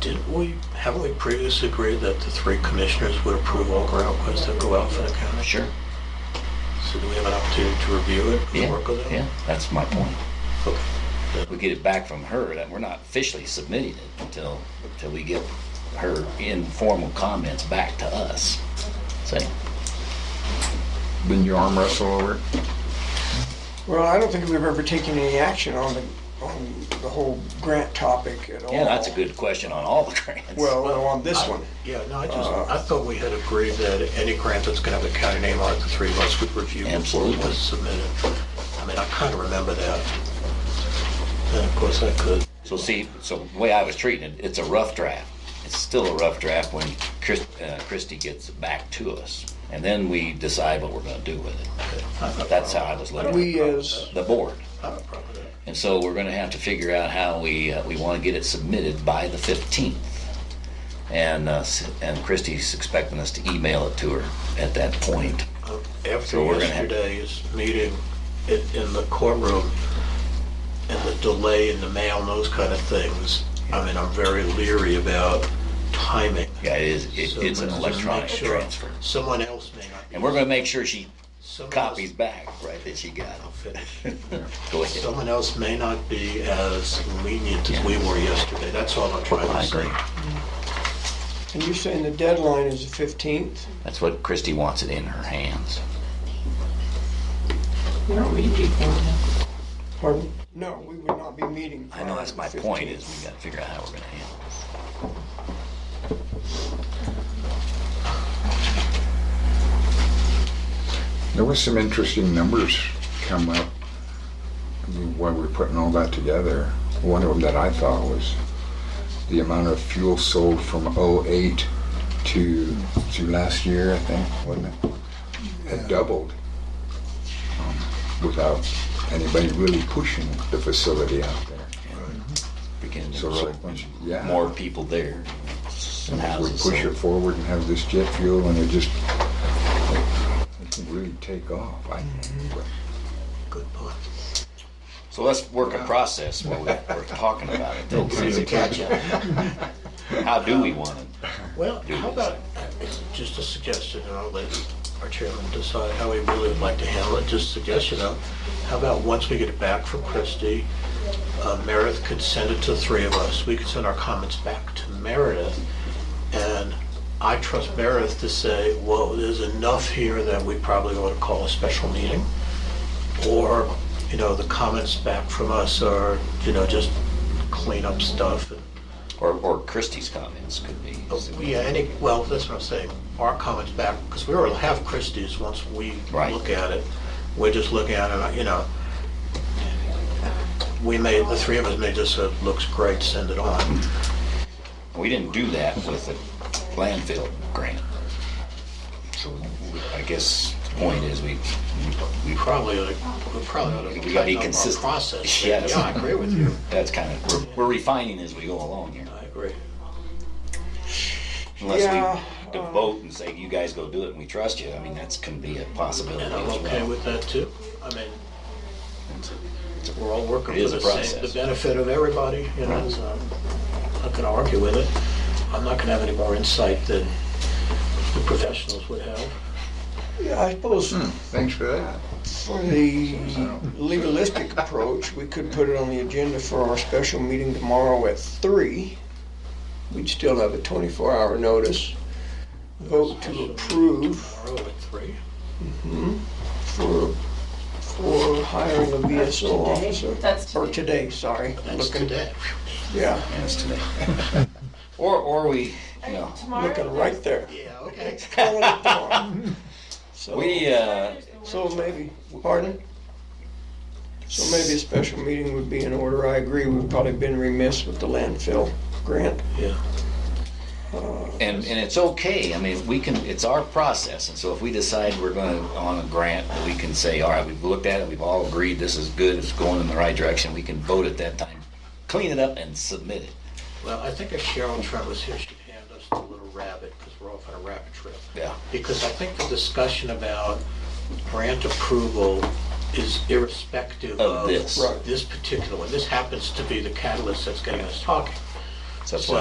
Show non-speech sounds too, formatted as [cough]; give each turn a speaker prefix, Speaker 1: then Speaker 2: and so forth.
Speaker 1: Didn't we, haven't we previously agreed that the three commissioners would approve all grant requests that go out for the county?
Speaker 2: Sure,
Speaker 1: So do we have an opportunity to review it and
Speaker 2: yeah,
Speaker 1: work with it?
Speaker 2: yeah, that's my point.
Speaker 1: Okay.
Speaker 2: We get it back from her, that we're not officially submitting it until, until we get her informal comments back to us. Say,
Speaker 3: Then you arm wrestle over it.
Speaker 4: Well, I don't think we've ever taken any action on the, on the whole grant topic at all.
Speaker 2: yeah, that's a good question on all the [laughs] grants.
Speaker 4: Well, on this
Speaker 1: I-
Speaker 4: one.
Speaker 1: Yeah, no, I just, I thought we had agreed that any grant that's gonna have a county name on it, the three of us would review before it
Speaker 2: Absolutely.
Speaker 1: was submitted. I mean, I kinda remember that. And of course I could.
Speaker 2: So see, so the way I was treating it, it's a rough draft. It's still a rough draft when Chris, uh, Christie gets it back to us. And then we decide what we're gonna do with it. That's how I was looking at it.
Speaker 4: We uh, as,
Speaker 2: The board.
Speaker 1: I have a problem with that.
Speaker 2: And so we're gonna have to figure out how we, uh, we wanna get it submitted by the fifteenth. And, uh, s- and Christie's expecting us to email it to her at that point.
Speaker 1: Uh, After
Speaker 2: So we're gonna have-
Speaker 1: yesterday's meeting in, in the courtroom and the delay in the mail and those kind of things, I mean, I'm very leery about timing.
Speaker 2: Yeah, it is, it-
Speaker 1: So
Speaker 2: it's an
Speaker 1: let's just
Speaker 2: electronic
Speaker 1: make sure
Speaker 2: transfer.
Speaker 1: Someone else may not. be-
Speaker 2: And we're gonna make sure she
Speaker 1: someone else-
Speaker 2: copies back, right, that she got
Speaker 1: I'll
Speaker 2: [laughs] them.
Speaker 1: finish.
Speaker 2: Go ahead.
Speaker 1: Someone else may not be as lenient as we were yesterday. That's all I'm trying
Speaker 2: I
Speaker 1: to say.
Speaker 2: agree.
Speaker 4: and you're saying the deadline is the 15th?
Speaker 2: That's what Christie wants it in her hands.
Speaker 4: Pardon? No, we would not be meeting.
Speaker 2: I know that's my
Speaker 4: Friday the
Speaker 2: point
Speaker 4: 15th.
Speaker 2: is we gotta figure out how we're gonna handle it.
Speaker 3: There was some interesting numbers come up when we were putting all that together. One of them that I thought was the amount of fuel sold from '08 to, to last year, I think, wasn't it? Had doubled um, without anybody really pushing the facility out there.
Speaker 2: Beginning
Speaker 3: So
Speaker 2: to
Speaker 3: like,
Speaker 2: put
Speaker 3: yeah.
Speaker 2: more people there. Some
Speaker 3: If we
Speaker 2: houses
Speaker 3: push it
Speaker 2: sold.
Speaker 3: forward and have this jet fuel and it just, it can really take off, I think. But
Speaker 1: Good point.
Speaker 2: So let's work a process while we- we're talking about
Speaker 1: [laughs]
Speaker 2: it. then, see if we catch up. How do we want it?
Speaker 1: Well, how about, it's just a suggestion, and I'll let our chairman decide how he really would like to handle it, just a suggestion of, how about once we get it back from Christie, uh, Meredith could send it to the three of us, we could send our comments back to Meredith, and I trust Meredith to say, whoa, there's enough here that we probably ought to call a special meeting, or, you know, the comments back from us are, you know, just clean up stuff and
Speaker 2: Or, or Christie's comments could be.
Speaker 1: yeah, any, well, that's what I'm saying, our comments back, because we already have Christie's once we
Speaker 2: Right.
Speaker 1: look at it. We're just looking at it, you know. We may, the three of us may just say, looks great, send it on.
Speaker 2: Mm-hmm. We didn't do that with the landfill grant. So we- I guess the point is we, we, we-
Speaker 1: Probably, oughta- we probably ought to
Speaker 2: We gotta be
Speaker 1: tighten up our
Speaker 2: consistent.
Speaker 1: process. Yeah,
Speaker 2: [laughs] Yes.
Speaker 1: I agree with
Speaker 2: [laughs]
Speaker 1: you.
Speaker 2: that's kind of, we're, we're refining as we go along here.
Speaker 1: I agree.
Speaker 2: Unless
Speaker 4: Yeah,
Speaker 1: uh,
Speaker 2: we devote and say, you guys go do it and we trust you, I mean, that's can be a possibility
Speaker 1: And I'm
Speaker 2: as
Speaker 1: okay
Speaker 2: well.
Speaker 1: with that too. I mean, we're all working
Speaker 2: It
Speaker 1: for
Speaker 2: is a
Speaker 1: the same,
Speaker 2: process.
Speaker 1: the benefit of everybody, you know, so I'm not gonna argue with it. I'm not gonna have any more insight than the professionals would have.
Speaker 4: Yeah, I suppose
Speaker 2: Hmm.
Speaker 3: Thanks for that.
Speaker 4: for the legalistic approach, we could put it on the agenda for our special meeting tomorrow at three. We'd still have a 24-hour notice. Vote to approve
Speaker 1: Tomorrow at three?
Speaker 4: for, for hiring a VSO officer.
Speaker 5: That's
Speaker 4: Or
Speaker 5: today.
Speaker 4: today, sorry.
Speaker 1: That's
Speaker 4: Looking-
Speaker 1: today.
Speaker 4: Yeah,
Speaker 2: Yes, today. Or, or we, you know,
Speaker 4: looking
Speaker 5: Tomorrow?
Speaker 4: right there.
Speaker 1: Yeah, okay.
Speaker 4: Calling it tomorrow.
Speaker 2: we,
Speaker 4: So,
Speaker 2: uh,
Speaker 4: so maybe, pardon? So maybe a special meeting would be in order. I agree, we've probably been remiss with the landfill grant.
Speaker 1: Yeah.
Speaker 2: and, and it's okay, I mean, we can, it's our process, and so if we decide we're gonna, on a grant, we can say, all right, we've looked at it, we've all agreed, this is good, it's going in the right direction, we can vote at that time, clean it up and submit it.
Speaker 1: Well, I think if Cheryl Trent was here, she'd hand us the little rabbit, because we're off on a rabbit trail.
Speaker 2: Yeah.
Speaker 1: Because I think the discussion about grant approval is irrespective
Speaker 2: Of
Speaker 1: of
Speaker 2: this.
Speaker 4: Right.
Speaker 1: this particular one. This happens to be the catalyst that's getting us talking.
Speaker 2: So that's
Speaker 1: So-
Speaker 2: why